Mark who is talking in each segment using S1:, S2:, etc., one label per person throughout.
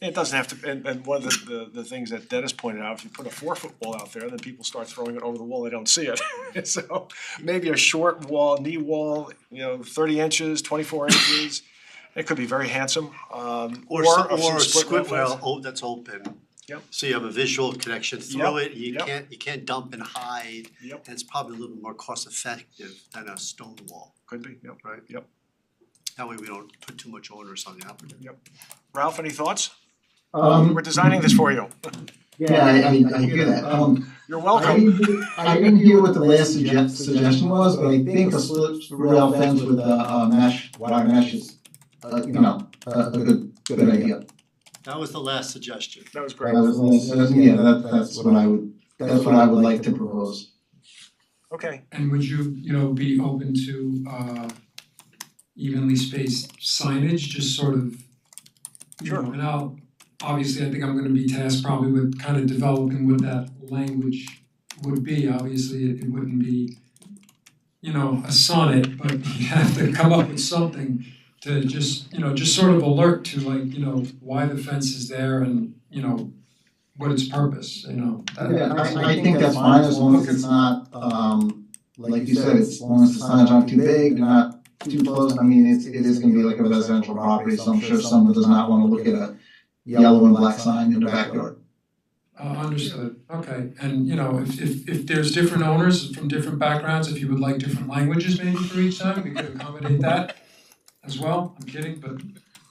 S1: It doesn't have to, and, and one of the, the, the things that Dennis pointed out, if you put a four-foot wall out there, then people start throwing it over the wall, they don't see it. So maybe a short wall, knee wall, you know, thirty inches, twenty-four inches, it could be very handsome, um, or
S2: Or
S1: a
S2: some,
S1: few
S2: or a
S1: split
S2: squid well,
S1: rail
S2: oh, that's open.
S1: Yep.
S2: So you have a visual connection through
S1: Yep,
S2: it, you
S1: yep.
S2: can't, you can't dump and hide.
S1: Yep.
S2: And it's probably a little bit more cost effective than a stone wall,
S1: Could be, yep.
S2: right?
S1: Yep.
S2: That way we don't put too much onus on the applicant.
S1: Ralph, any thoughts?
S3: Um,
S1: We're designing this for you.
S3: yeah, I, I, I hear that. Um,
S1: You're
S3: I
S1: welcome.
S3: didn't, I didn't hear what the last sugge- suggestion was, but I think a split rail fence with a, uh mesh, wire mesh is, uh, you know, a, a good, good idea.
S2: That was the last suggestion.
S1: That was
S3: That
S1: great.
S3: was, the last- uh, yeah, that, that's what I would, that's what I would like to propose.
S1: Okay,
S4: And would you, you know, be open to uh evenly spaced signage, just sort of, you know,
S1: Sure.
S4: and I'll, obviously, I think I'm gonna be tasked probably with kind of developing what that language would be, obviously, it it wouldn't be, you know, a sonnet, but you have to come up with something to just, you know, just sort of alert to like, you know, why the fence is there and, you know, what its purpose, you know, that
S3: Yeah, I, I think that's fine as long as it's not, um, like you said, as long as it's not not too big, not too close. I mean, it's, it is gonna be like a residential property, so I'm sure someone does not wanna look at a yellow and black sign in the backyard.
S4: Uh, understood, okay, and you know, if if if there's different owners from different backgrounds, if you would like different languages maybe for each sign, we could accommodate that as well, I'm kidding, but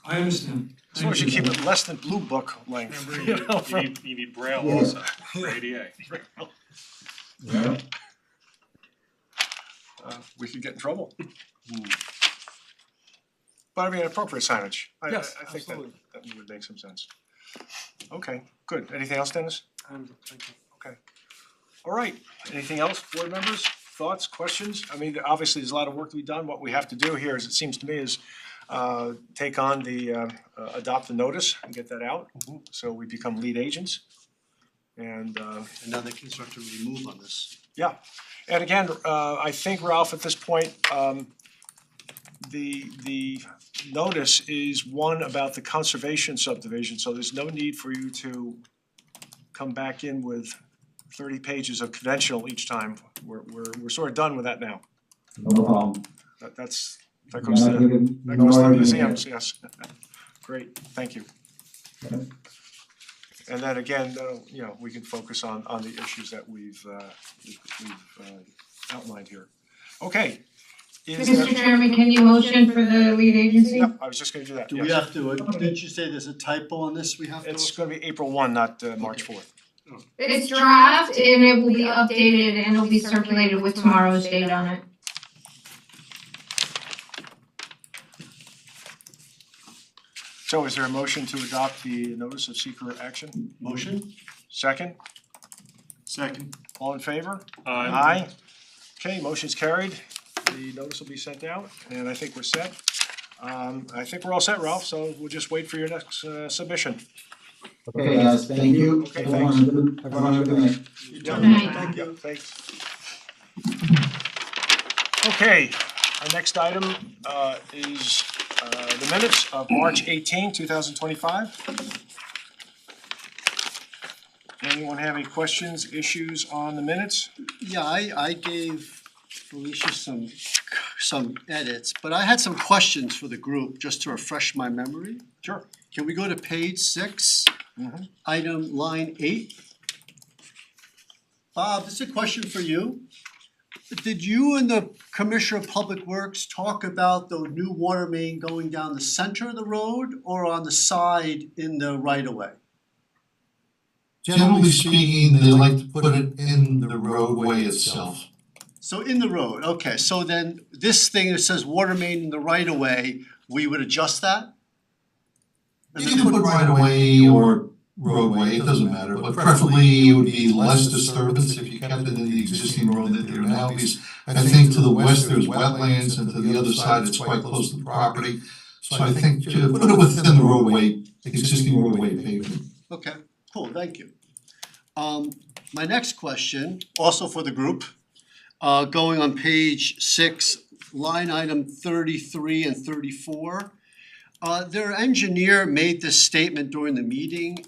S4: I understand.
S1: as long as you keep it less than blue book length,
S5: Remember,
S1: you know,
S5: you, you
S1: from-
S5: need, you need braille
S3: Yeah.
S5: also for ADA.
S3: Yeah.
S1: uh, we could get in trouble.
S5: Hmm.
S1: But I mean, appropriate signage, I, I I
S5: Yes,
S1: think that,
S5: absolutely.
S1: that would make some sense. Okay, good, anything else, Dennis? All right, anything else, board members, thoughts, questions? I mean, obviously, there's a lot of work to be done, what we have to do here is, it seems to me, is uh, take on the, uh, uh, adopt the notice and get that out,
S5: Mm-hmm.
S1: so we become lead agents. And, uh,
S2: Another constructor may move on this.
S1: yeah, and again, uh, I think Ralph, at this point, um, the, the notice is one about the conservation subdivision, so there's no need for you to come back in with thirty pages of conventional each time. We're, we're, we're sort of done with that now.
S3: No problem.
S1: That, that's, that goes to, the- that
S3: No
S1: goes to the
S3: argument.
S1: museums, yes. Great, thank you.
S3: Okay.
S1: And then again, that'll, you know, we can focus on, on the issues that we've, uh, we've, we've, uh, outlined here. Okay. Is there-
S6: Mr. Chairman, can you motion for the lead agency?
S1: Yep, I was just gonna do that,
S2: Do we
S1: yes.
S2: have to, uh, didn't you say there's a typo on this we have to?
S1: It's gonna be April one, not, uh, March fourth.
S6: It's draft and it will be updated and it'll be circulated with tomorrow's date on it.
S1: So is there a motion to adopt the notice of secret action?
S2: Motion?
S1: Second,
S2: Second.
S1: all in favor?
S5: Uh,
S1: Aye. Okay, motion's carried. The notice will be sent out, and I think we're set. Um, I think we're all set, Ralph, so we'll just wait for your next, uh, submission.
S3: Okay, guys, thank you.
S1: Okay,
S3: Everyone have a good- Everyone have a good night.
S1: Yeah.
S6: Night.
S1: Thank you. Thanks. Okay, our next item, uh, is, uh, the minutes of March 18, 2025. Anyone have any questions, issues on the minutes?
S2: Yeah, I I gave Felicia some some edits, but I had some questions for the group, just to refresh my memory.
S1: Sure.
S2: Can we go to page six?
S1: Mhm.
S2: Item line eight. Bob, this is a question for you. Did you and the Commissioner of Public Works talk about the new water main going down the center of the road or on the side in the right of way?
S7: Generally speaking, they like to put it in the roadway itself.
S2: So in the road, okay, so then this thing that says water main in the right of way, we would adjust that?
S7: You can put right away or roadway, it doesn't matter, but preferably it would be less disturbance if you kept it in the existing road that there now is. I think to the west, there's wetlands, and to the other side, it's quite close to the property. So I think to put it within the roadway, existing roadway pavement.
S2: Okay, cool, thank you. Um, my next question, also for the group, uh, going on page six, line item thirty-three and thirty-four. Uh, their engineer made this statement during the meeting,